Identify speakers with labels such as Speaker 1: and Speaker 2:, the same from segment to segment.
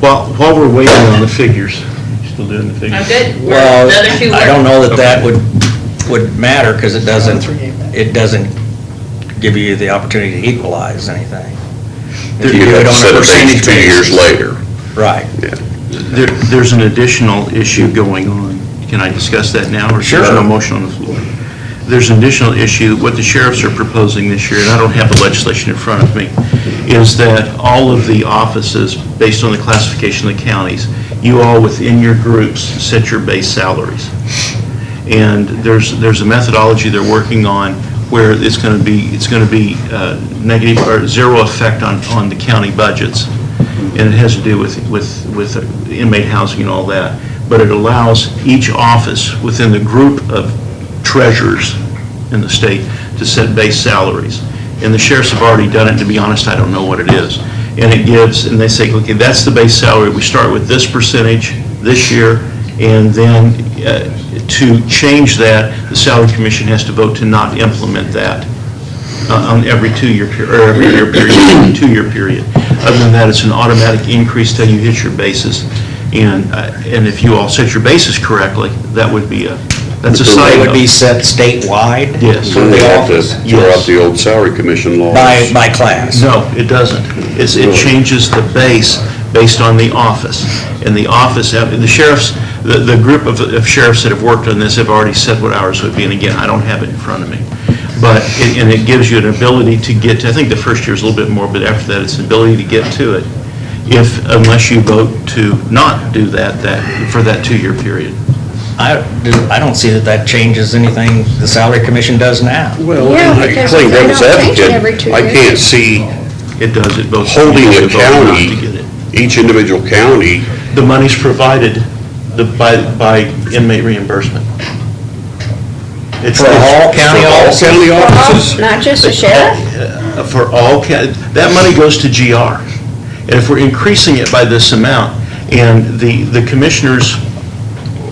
Speaker 1: While, while we're waiting on the figures, still doing the figures?
Speaker 2: I'm good. We're
Speaker 3: Well,
Speaker 2: the other two
Speaker 3: I don't
Speaker 2: were-
Speaker 3: know that that would, would matter, because it doesn't,
Speaker 4: Another three game.
Speaker 3: it doesn't give you the opportunity to equalize anything. If
Speaker 5: You
Speaker 3: do it
Speaker 5: have to
Speaker 3: on a
Speaker 5: set a date
Speaker 3: percentage
Speaker 5: two years
Speaker 3: basis.
Speaker 5: later.
Speaker 3: Right.
Speaker 1: There, there's an additional issue going on. Can I discuss that now? or is there
Speaker 3: Sure.
Speaker 1: no motion on the floor? There's an additional issue, what the sheriffs are proposing this year, and I don't have the legislation in front of me, is that all of the offices, based on the classification of the counties, you all within your groups set your base salaries. And there's, there's a methodology they're working on where it's going to be, it's going to be uh, negative or zero effect on, on the county budgets. And it has to do with, with, with inmate housing and all that. But it allows each office within the group of treasurers in the state to set base salaries. And the sheriffs have already done it, and to be honest, I don't know what it is. And it gives, and they say, okay, that's the base salary, we start with this percentage this year, and then uh, to change that, the salary commission has to vote to not implement that uh, on every two-year, per- or every year period, two-year period. Other than that, it's an automatic increase till you hit your basis. And, uh, and if you all set your basis correctly, that would be a, that's a side
Speaker 3: It
Speaker 1: note.
Speaker 3: would be set statewide?
Speaker 1: Yes.
Speaker 5: So they have to throw out
Speaker 1: Yes.
Speaker 5: the old salary commission laws.
Speaker 3: By, by class?
Speaker 1: No, it doesn't. It's, it changes the base based on the office. And the office, the sheriffs, the, the group of of sheriffs that have worked on this have already said what ours would be, and again, I don't have it in front of me. But, it- and it gives you an ability to get, to I think the first year is a little bit more, but after that, it's an ability to get to it if, unless you vote to not do that, that, for that two-year period.
Speaker 3: I, I don't see that that changes anything the salary commission does now.
Speaker 5: Well,
Speaker 6: Yeah,
Speaker 5: I
Speaker 6: because
Speaker 5: claim
Speaker 6: they
Speaker 5: devil's
Speaker 6: don't change it
Speaker 5: advocate,
Speaker 6: every two
Speaker 5: I
Speaker 6: years.
Speaker 5: can't see
Speaker 1: It does, it votes.
Speaker 5: holding
Speaker 1: you
Speaker 5: a
Speaker 1: have to vote not
Speaker 5: county,
Speaker 1: to get it.
Speaker 5: each individual county,
Speaker 1: The money's provided the- by, by inmate reimbursement. It's
Speaker 3: For all county
Speaker 5: For all
Speaker 3: offices?
Speaker 5: county
Speaker 6: Well,
Speaker 5: offices.
Speaker 6: Not just the sheriff?
Speaker 1: Uh, For all, ca- that money goes to GR. And if we're increasing it by this amount, and the, the commissioners'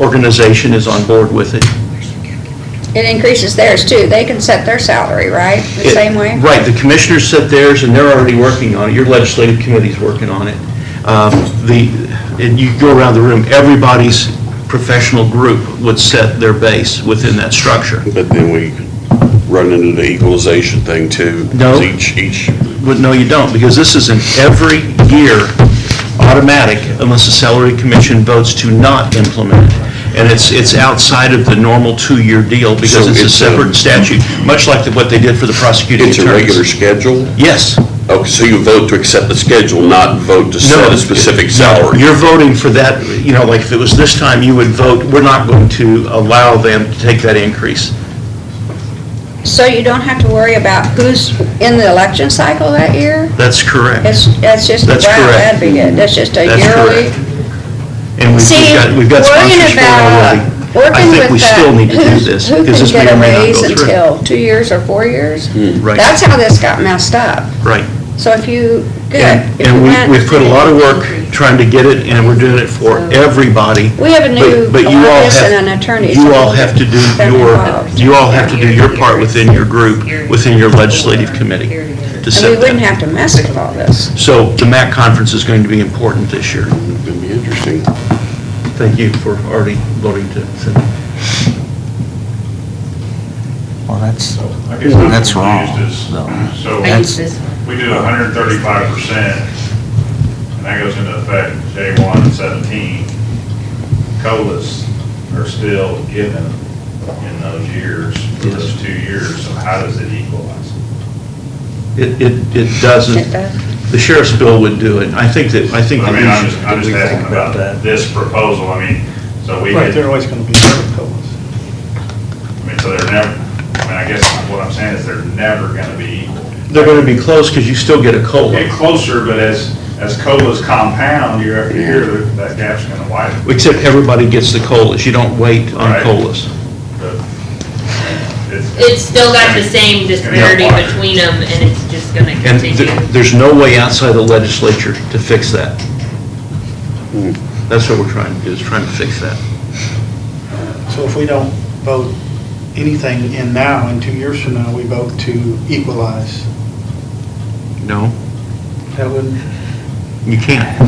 Speaker 1: organization is on board with it.
Speaker 6: It increases theirs too. They can set their salary, right? The
Speaker 1: it-
Speaker 6: same way?
Speaker 1: Right, the commissioners set theirs, and they're already working on it, your legislative committee's working on it. Um, The, and you go around the room, everybody's professional group would set their base within that structure.
Speaker 5: But then we run into the equalization thing too. 'cause
Speaker 1: No.
Speaker 5: Each, each,
Speaker 1: Well, no, you don't, because this is an every year automatic unless the salary commission votes to not implement it. And it's, it's outside of the normal two-year deal because
Speaker 5: So
Speaker 1: it's a
Speaker 5: it's a-
Speaker 1: separate statute, much like the- what they did for the prosecuting
Speaker 5: it's a regular
Speaker 1: attorneys.
Speaker 5: schedule?
Speaker 1: Yes.
Speaker 5: Okay, so you vote to accept the schedule, not vote to set a specific salary?
Speaker 1: You're voting for that, you know, like if it was this time, you would vote, we're not going to allow them to take that increase.
Speaker 6: So you don't have to worry about who's in the election cycle that year?
Speaker 1: That's correct.
Speaker 6: It's, that's just a
Speaker 1: That's
Speaker 6: brown
Speaker 1: correct.
Speaker 6: advocate. That's just a
Speaker 1: That's
Speaker 6: yearly.
Speaker 1: correct. And we've
Speaker 6: See,
Speaker 1: we've got, we've got
Speaker 6: worrying
Speaker 1: sponsors for it
Speaker 6: about- uh,
Speaker 1: already.
Speaker 6: working
Speaker 1: I think
Speaker 6: with
Speaker 1: we
Speaker 6: the-
Speaker 1: still need to do
Speaker 6: who's-
Speaker 1: this, because this may or may not go
Speaker 6: Who can get a raise
Speaker 1: through. Hmm.
Speaker 6: until two years or four years?
Speaker 1: Right.
Speaker 6: That's how this got messed up.
Speaker 1: Right.
Speaker 6: So if you, good.
Speaker 1: And
Speaker 6: if
Speaker 1: and
Speaker 6: you went-
Speaker 1: we, we've put a lot of work trying to get it, and we're doing it for everybody.
Speaker 6: We have a new
Speaker 1: But- but you all
Speaker 6: lobbyist
Speaker 1: have-
Speaker 6: and an attorney.
Speaker 1: You all have to do
Speaker 6: They're
Speaker 1: your,
Speaker 6: involved.
Speaker 1: you all have to do your part within your group, within your legislative committee to
Speaker 6: And we
Speaker 1: set
Speaker 6: wouldn't
Speaker 1: that.
Speaker 6: have to mess with all this.
Speaker 1: So the MAC conference is going to be important this year.
Speaker 5: It's gonna be interesting.
Speaker 1: Thank you for already voting to send it.
Speaker 3: Well, that's,
Speaker 7: I guess I'm
Speaker 3: That's wrong,
Speaker 7: confused is-
Speaker 3: though.
Speaker 7: So,
Speaker 2: I used this.
Speaker 7: we do hundred and thirty-five percent, and that goes into effect J one and seventeen. COLAs are still given in those years, for those two years, so how does it equalize?
Speaker 1: It, it, it doesn't,
Speaker 6: It does.
Speaker 1: the sheriff's bill would do it. I think that, I think.
Speaker 7: I
Speaker 1: that
Speaker 7: mean,
Speaker 1: we
Speaker 7: I'm
Speaker 1: should-
Speaker 7: just, I'm just asking about this proposal, I mean, so we
Speaker 4: Right,
Speaker 7: could,
Speaker 4: they're
Speaker 7: I
Speaker 4: always going to be separate colas.
Speaker 7: mean, so they're never, I mean, I guess what I'm saying is they're never gonna be equal.
Speaker 1: They're going to be close because you still get a COLA,
Speaker 7: Get closer, but as, as COLAs compound year after year, that gap's gonna widen.
Speaker 1: except everybody gets the COLAs. You don't wait on
Speaker 7: Right.
Speaker 1: COLAs.
Speaker 2: It's still got the same disparity
Speaker 7: Yeah.
Speaker 2: between them and it's just gonna
Speaker 1: And
Speaker 2: continue.
Speaker 1: th- there's no way outside the legislature to fix that.
Speaker 7: Hmm.
Speaker 1: That's what we're trying to do, is trying to fix that.
Speaker 4: So if we don't vote anything in now, in two years from now, we vote to equalize,
Speaker 1: No,
Speaker 4: that wouldn't
Speaker 1: you can't.